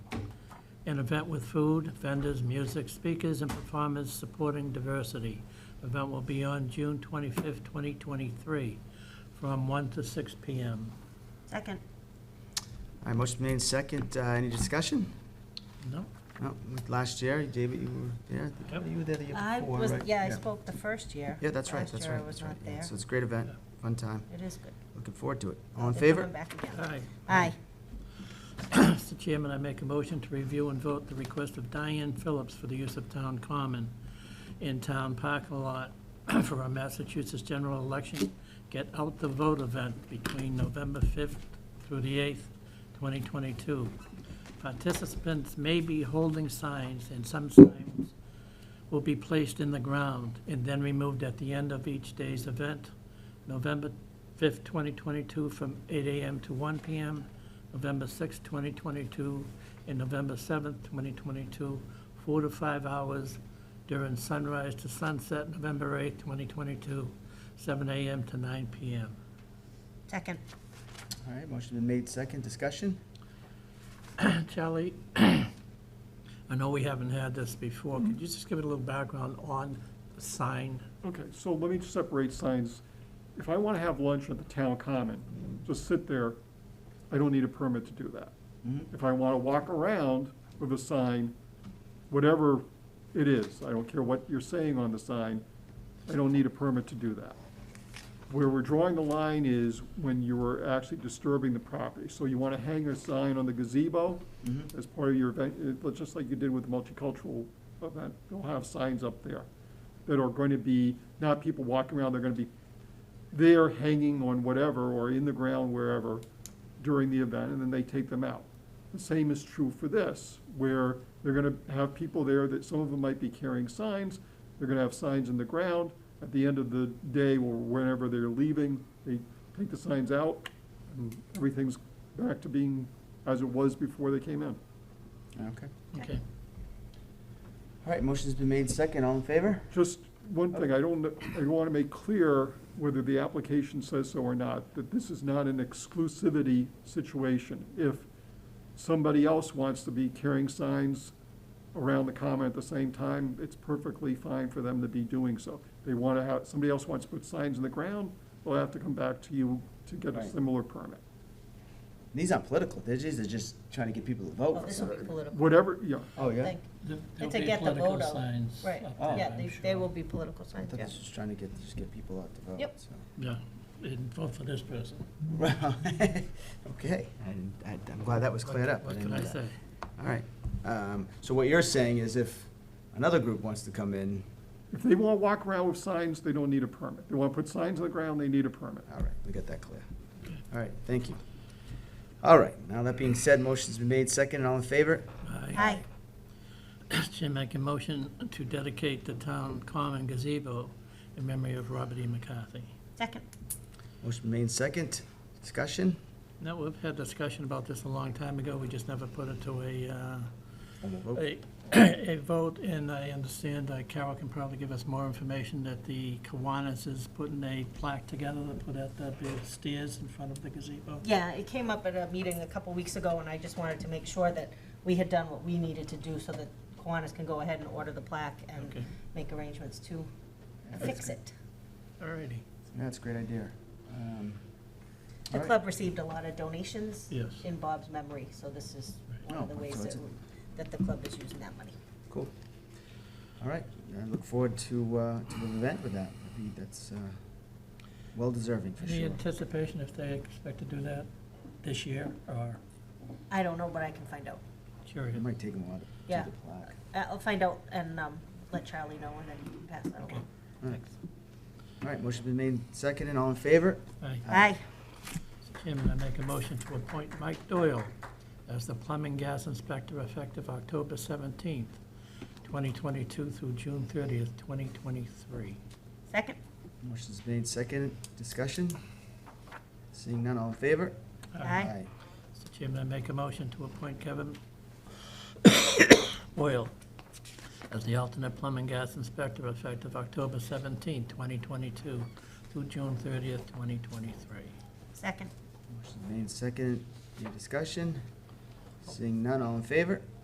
An event with food, vendors, music, speakers, and performers supporting diversity. Event will be on June 25th, 2023, from 1 to 6 p.m. Second. All right, motion made in second. Uh, Any discussion? No? No, Last year, David, you were there. I think. Yep. You were there the year I before, was, right? yeah, I spoke the first year. Yeah, that's right, Last that's year I right. was that's not right. Yeah, there. So it's a great event, fun time. It is good. Looking forward to it. All in They're favor? coming back again. Aye. Aye. Mr. Chairman, I make a motion to review and vote the request of Diane Phillips for the use of town common in town parking lot for our Massachusetts general election Get Out the Vote event between November 5th through the 8th, 2022. Participants may be holding signs, and some signs will be placed in the ground and then removed at the end of each day's event. November 5th, 2022, from 8 a.m. to 1 p.m., November 6th, 2022, and November 7th, 2022, four to five hours during sunrise to sunset, November 8th, 2022, 7 a.m. to 9 p.m. Second. All right, motion been made second. Discussion? Charlie, I know we haven't had this before. Could you just give it a little background on the sign? Okay, so let me separate signs. If I want to have lunch at the town common, just sit there, I don't need a permit to do that. Mm-hmm, If I want to walk around with a sign, whatever it is, I don't care what you're saying on the sign, I don't need a permit to do that. Where we're drawing the line is when you are actually disturbing the property. So you want to hang a sign on the gazebo mm-hmm, as part of your event, uh, just like you did with the multicultural event, you'll have signs up there that are going to be, not people walking around, they're going to be there hanging on whatever or in the ground wherever during the event, and then they take them out. The same is true for this, where they're going to have people there that, some of them might be carrying signs, they're going to have signs in the ground. At the end of the day or whenever they're leaving, they take the signs out, and everything's back to being as it was before they came in. Okay. Okay. All right, motion's been made second. All in favor? Just one thing, I don't, I want to make clear whether the application says so or not, that this is not an exclusivity situation. If somebody else wants to be carrying signs around the common at the same time, it's perfectly fine for them to be doing so. They want to have, somebody else wants to put signs in the ground, they'll have to come back to you to get a Right. similar permit. These aren't political, they're just, they're just trying to get people to vote. Well, Oh, this will be political, Whatever, yeah, Oh, I yeah? think. There'll It's a be get the political vote out. signs Right, up Oh. there, yeah, I'm they, they sure. will be political I signs, thought yeah. this was trying to get, just get people out to vote. Yep. so. Yeah, and vote for this person. Well, Okay, and I- I'm glad that was cleared up. uh, What didn't can I know that. say? All right. Um, So what you're saying is if another group wants to come in, if they want to walk around with signs, they don't need a permit. They want to put signs on the ground, they need a permit. all right, we got that clear. All right, thank you. All right, now that being said, motion's been made second and all in favor? Aye. Jim, make a motion to dedicate the town common gazebo in memory of Robert E. McCarthy. Second. Motion been made second. Discussion? Now, we've had discussion about this a long time ago, we just never put it to a, uh, And we'll vote. a, a vote, and I understand uh, Carol can probably give us more information that the Kiwanis is putting a plaque together to put at the big stairs in front of the gazebo. Yeah, it came up at a meeting a couple weeks ago, and I just wanted to make sure that we had done what we needed to do so that Kiwanis can go ahead and order the plaque and Okay. make arrangements to fix it. All righty, Yeah, That's a great idea. Um, The all right. club received a lot of donations Yes. in Bob's memory, so this is one Oh, of the so ways it's that, a- that the club is using that money. Cool. All right, I look forward to, uh, to an event with that. I think that's, uh, well deserving for any sure. anticipation if they expect to do that this year, or I don't know, but I can find out. curious? It might take them a while to Yeah. do the plaque. I- I'll find out and um, let Charlie know, and then he can pass that along. All right. All right, motion's been made second and all in favor? Aye. Aye. Mr. Chairman, I make a motion to appoint Mike Doyle as the plumbing gas inspector effective October 17th, 2022 through June 30th, 2023. Second? Motion's made second. Discussion? Seeing none, all in favor? Aye. Mr. Chairman, I make a motion to appoint Kevin Boyle as the alternate plumbing gas inspector effective October 17th, 2022 through June 30th, 2023. Second. Motion's made second. Any discussion? Seeing none, all in favor?